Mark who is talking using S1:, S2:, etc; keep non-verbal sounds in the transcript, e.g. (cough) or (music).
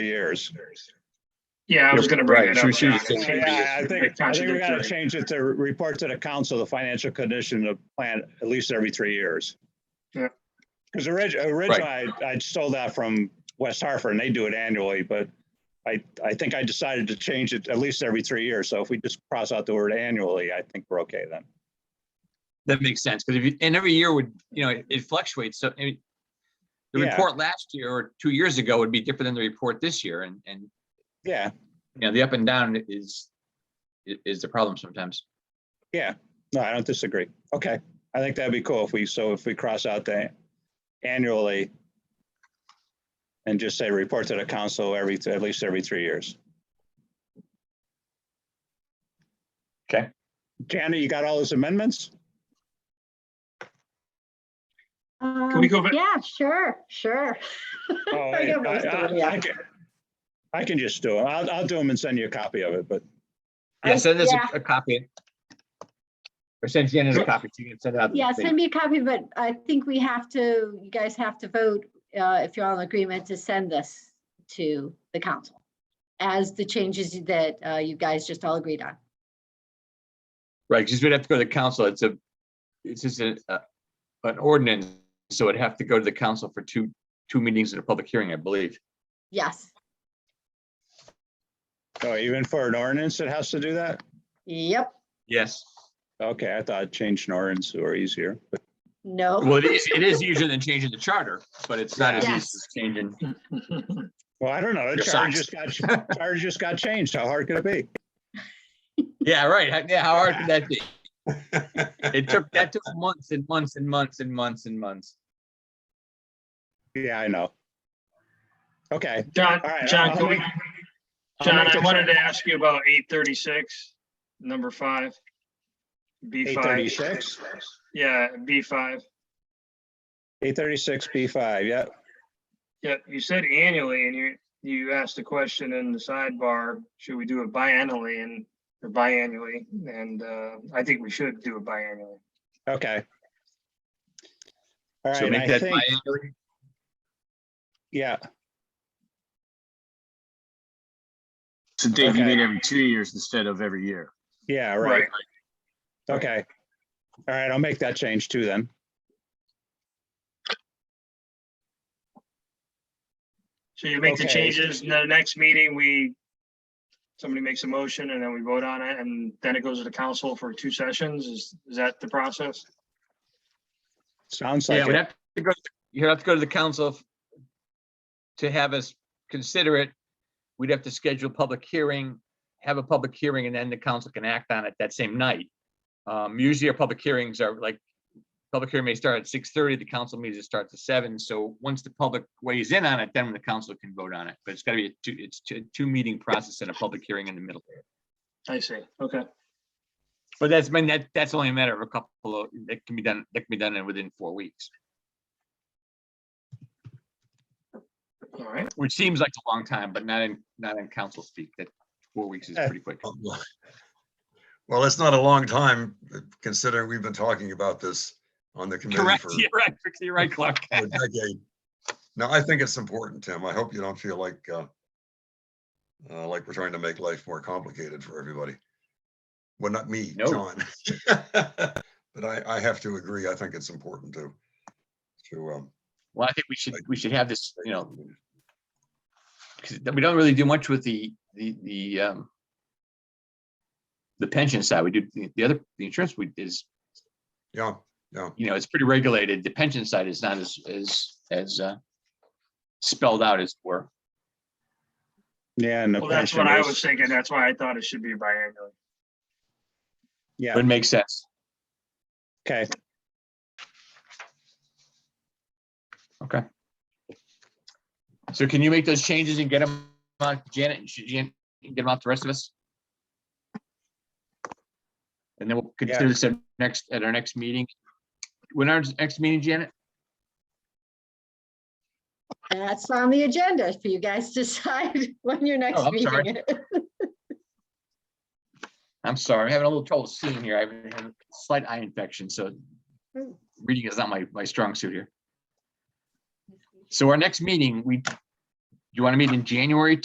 S1: years.
S2: Yeah, I was gonna bring
S3: Right,
S2: it up.
S3: she-
S2: John.
S3: she's saying-
S2: Change it.
S1: Oh, Yeah, I think, I think we gotta
S2: Contradictory.
S1: change it to report to the council the financial condition of plant at least every three years.
S2: Yeah.
S1: Because originally, originally I, I stole that from West Hartford and they do it annually, but I, I think I decided to change it at least every three years. So if we just cross out the word annually, I think we're okay then.
S4: That makes sense, because if you, and every year would, you know, it- it fluctuates, so. I mean, The
S1: Yeah.
S4: report last year or two years ago would be different than the report this year, and, and,
S1: Yeah,
S4: you know, the up and down is, i- is the problem sometimes.
S1: yeah. No, I don't disagree. Okay. I think that'd be cool if we, so if we cross out the annually and just say report to the council every, at least every three years.
S4: Okay.
S1: Janet, you got all those amendments?
S2: Can we
S5: Um,
S2: go back?
S5: Yeah, sure, sure.
S1: Oh,
S5: I
S1: I
S5: got most of them,
S1: I-
S5: yeah.
S1: I can- I can just do it. I'll, I'll do them and send you a copy of it, but
S4: Yeah,
S5: I-
S4: send us a-
S5: yeah.
S4: a copy. Or send Janet a copy, so you can send it out. to the
S5: Yeah,
S4: state.
S5: send me a copy, but I think we have to, you guys have to vote, uh, if you're all in agreement, to send this to the council as the changes that uh, you guys just all agreed on.
S4: Right, because we'd have to go to the council. It's a, it's just a, a- an ordinance, so it'd have to go to the council for two, two meetings and a public hearing, I believe.
S5: Yes,
S1: oh, even for an ordinance, it has to do that?
S5: yep,
S4: Yes.
S1: Okay, I thought changing ordinance were easier. but-
S5: no,
S4: Well, it is, it is easier than changing the charter, but it's not as easy
S5: Yes.
S4: as changing.
S1: Well, I don't know. The
S4: Your
S1: charge
S4: socks.
S1: just got, charge just got changed. How hard could it be?
S4: Yeah, right. How- Yeah, how hard could that be? It took, that took months and months and months and months and months.
S1: Yeah, I know. Okay,
S2: John,
S1: all right.
S2: John,
S1: I'll
S2: can we,
S1: make- I'll
S2: John,
S1: make
S2: I
S1: the-
S2: wanted to ask you about eight thirty-six, number five. B five.
S1: 836?
S2: Yeah, B five.
S1: Eight thirty-six B five, yeah.
S2: Yeah, you said annually and you, you asked the question in the sidebar, should we do it biannually and, or biannually? And, uh, I think we should do it biannually.
S1: Okay. All
S4: So
S1: right,
S4: make
S1: I
S4: that
S1: think,
S4: biannually.
S1: yeah,
S6: So Dave, you
S1: Okay.
S6: mean every two years instead of every year?
S1: yeah, right. Okay. All right, I'll make that change too then.
S2: So you make the
S1: Okay.
S2: changes, and the next meeting, we, somebody makes a motion and then we vote on it, and then it goes to the council for two sessions, is, is that the process?
S1: Sounds
S4: Yeah,
S1: like
S4: we'd
S1: it.
S4: have to go, you'd have to go to the council f- to have us consider it. We'd have to schedule a public hearing, have a public hearing, and then the council can act on it that same night. Um, usually our public hearings are like, public hearing may start at six thirty, the council meeting starts at seven, so once the public weighs in on it, then the council can vote on it, but it's gotta be a two, it's two, two-meeting process and a public hearing in the middle.
S2: I see, okay,
S4: But that's, I mean, that, that's only a matter of a couple of, that can be done, that can be done in within four weeks,
S2: all right.
S4: which seems like a long time, but not in, not in council speak, that four weeks is
S1: Eh.
S4: pretty quick.
S7: (laughs) Well, it's not a long time considering we've been talking about this on the committee
S4: Correct,
S7: for
S4: you're right, you're right, Clark.
S7: for a decade. No, I think it's important, Tim. I hope you don't feel like, uh, uh, like we're trying to make life more complicated for everybody. Well, not me,
S4: No.
S7: John. (laughs) But I, I have to agree. I think it's important to, to, um,
S4: Well, I think we should, we should have this, you know, because we don't really do much with the, the, the, um, the pension side, we do, the- the other, the insurance we is,
S7: yeah, yeah.
S4: you know, it's pretty regulated, the pension side is not as, as, as, uh, spelled out as it were.
S1: Yeah, and the
S2: Well, that's
S1: pension
S2: what I
S1: is-
S2: was thinking, that's why I thought it should be biannually.
S1: Yeah,
S4: would make sense.
S1: okay,
S4: Okay. So can you make those changes and get them out, Janet, and should Jan, get them out to the rest of us? And then we'll consider this at next, at our next meeting. When our next meeting, Janet?
S5: that's on the agenda for you guys to (laughs) decide when your
S2: Oh,
S5: next
S4: I'm sorry.
S5: meeting. is.
S4: I'm sorry, I'm having a little trouble seeing here. I've had a slight eye infection, so
S5: Hmm.
S4: reading is not my, my strong suit here. So our next meeting, we you want to meet in January